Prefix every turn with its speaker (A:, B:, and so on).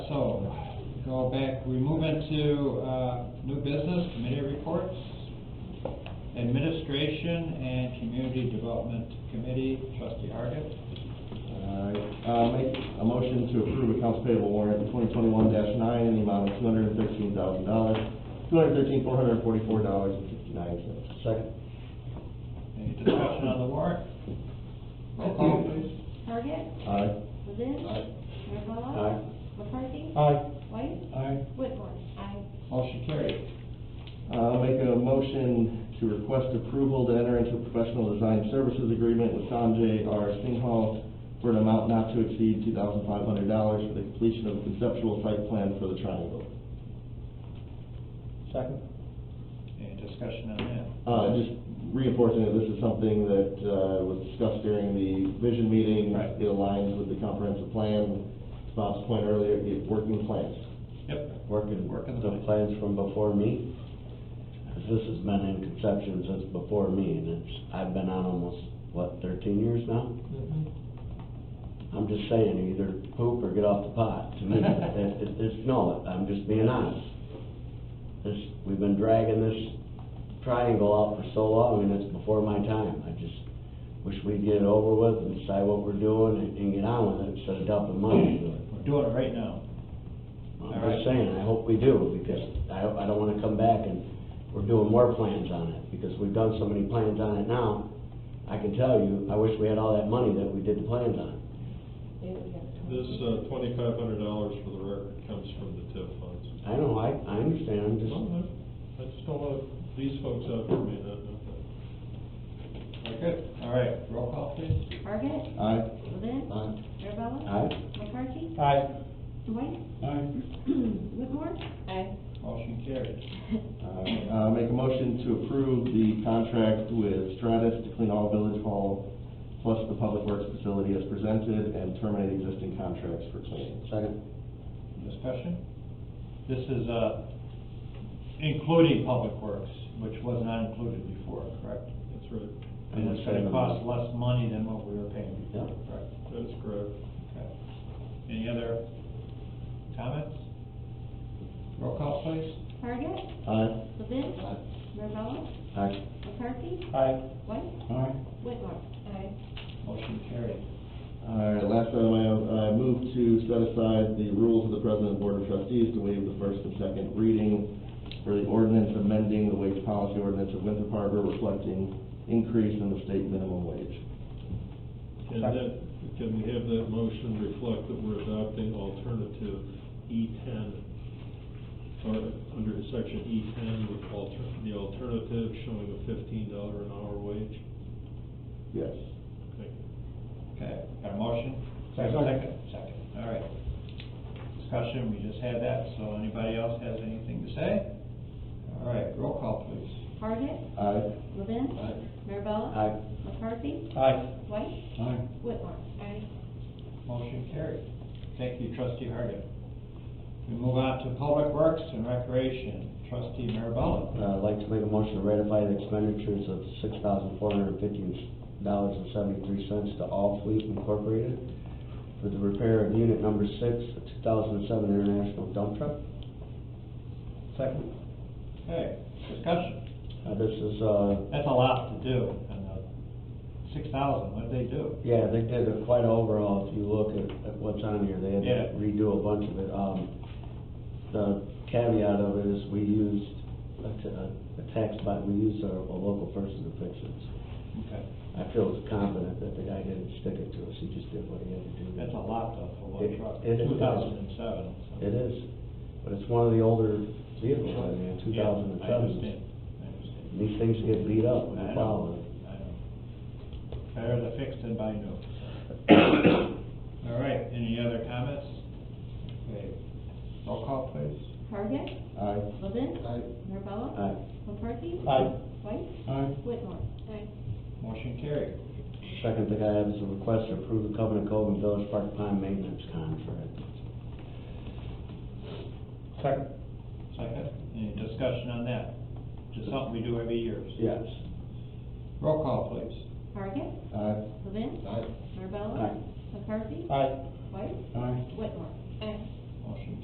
A: go back, we move into, uh, new business, committee reports, administration and community development committee, trustee Hargit.
B: Alright, uh, make a motion to approve accounts payable warrant twenty twenty-one nine in the amount of two hundred and thirteen thousand dollars, two hundred and thirteen, four hundred and forty-four dollars and fifty-nine cents.
C: Second.
A: Any discussion on the warrant? Roll call, please. Uh,
D: Target,
B: Aye.
D: Levin.
C: Aye.
D: Mirabella.
C: Aye.
D: McCarthy.
C: Aye.
D: White.
C: Aye.
D: Whitmore. Aye.
A: Motion carried.
B: Uh, make a motion to request approval to enter into a professional design services agreement with Sanjay R. Singhal for an amount not to exceed two thousand five hundred dollars for the completion of the conceptual site plan for the triangle.
C: Second.
A: Any discussion on that?
B: Uh, just reinforcing that this is something that, uh, was discussed during the vision meeting.
A: Right.
B: It aligns with the comprehensive plan, to Bob's point earlier, it working plans.
A: Yep.
C: Working,
A: Working the
C: the
A: plan.
C: plans from before me, 'Cause this has been in conception since before me, and it's, I've been on almost, what, thirteen years now? I'm just saying, either poop or get off the pot, to me, it, it, it's, no, I'm just being honest. This, we've been dragging this triangle out for so long, and it's before my time, I just wish we'd get it over with and decide what we're doing and, and get on with it, instead of dumping money into it.
A: We're doing it right now.
C: I'm just saying, I hope we do, because I, I don't wanna come back and we're doing more plans on it, because we've done so many plans on it now. I can tell you, I wish we had all that money that we did the plans on.
E: This uh, twenty-five hundred dollars for the record comes from the TIF funds.
C: I know, I, I understand, I'm just,
E: No, I I just don't want these folks out there may not know that.
A: We're good. All right, roll call, please.
D: Target,
B: Aye.
D: Levin.
B: Aye.
D: Mirabella.
C: I,
D: McCarthy.
A: Aye.
D: White. Whitmore. Aye.
A: Motion carried.
B: Uh, make a motion to approve the contract with Stratus to clean all village hall plus the public works facility as presented and terminate existing contracts for cleaning.
C: second,
A: Discussion? This is, uh, including public works, which was not included before, correct?
E: That's right.
A: And it's gonna cost less money than what we were paying before,
C: Yeah.
A: correct?
E: That's correct.
A: Okay. Any other comments? Roll call, please.
D: Target,
B: Aye.
D: Levin. Mirabella.
C: I,
D: McCarthy.
A: Aye.
D: White.
B: Aye.
D: Whitmore. Aye.
A: Motion carried.
B: All right, last item, I, I move to set aside the rules of the President and Board of Trustees to waive the first and second reading for the ordinance amending the wage policy ordinance of Winthrop Harbor reflecting increase in the state minimum wage.
E: And that, can we have that motion reflect that we're adopting alternative E ten? Or under section E ten with alter, the alternative showing a fifteen dollar an hour wage?
B: Yes.
E: Thank you.
A: Okay, got a motion?
C: Second.
A: Second, all right. Discussion, we just had that, so anybody else has anything to say? All right, roll call, please.
D: Target,
B: Aye.
D: Levin.
A: Aye.
D: Mirabella.
C: I,
D: McCarthy.
A: Aye.
D: White. Whitmore. Aye.
A: Motion carried. Thank you, trustee Hargit. We move on to Public Works and Recreation, trustee Marabella.
C: uh, like to make a motion to ratify the expenditures of six thousand four hundred and fifteen dollars and seventy-three cents to All Fleet Incorporated for the repair of unit number six, the two thousand and seven International Dump Truck.
A: Second. Okay, discussion.
C: Uh, this is, uh,
A: That's a lot to do, and, uh, six thousand, what'd they do?
C: Yeah, they did a quite overall, if you look at, at what's on here, they had
A: Yeah.
C: to redo a bunch of it. Um, the caveat of it is we used a, t- a- a tax bot, we used a, a local person to fix it.
A: Okay,
C: I feel confident that the guy didn't stick it to us, he just did what he had to do.
A: that's a lot though for one
C: It-
A: truck,
C: it is.
A: two thousand and seven.
C: It is, but it's one of the older vehicles, I mean, two thousand and
A: I
C: seven.
A: understand, I understand.
C: These things get beat up when
A: I
C: you
A: know,
C: follow it.
A: I know. Better to fix than buy new. All right, any other comments? Okay, roll call please.
D: Target,
B: Aye.
D: Levin. Mirabella.
C: Aye.
D: McCarthy.
A: Aye.
D: White.
B: Aye.
D: Whitmore. Aye.
A: Motion carried.
C: Second thing I have is a request to approve the Covenant Cove and Village Park Pond Maintenance Contract.
A: Second. Second, any discussion on that? Just something we do every year.
C: Yes.
A: Roll call please.
D: Target,
B: Aye.
D: Levin.
B: Aye.
D: Mirabella.
C: Aye.
D: McCarthy.
A: Aye.
D: White.
B: Aye.
D: Whitmore. Aye.
A: Motion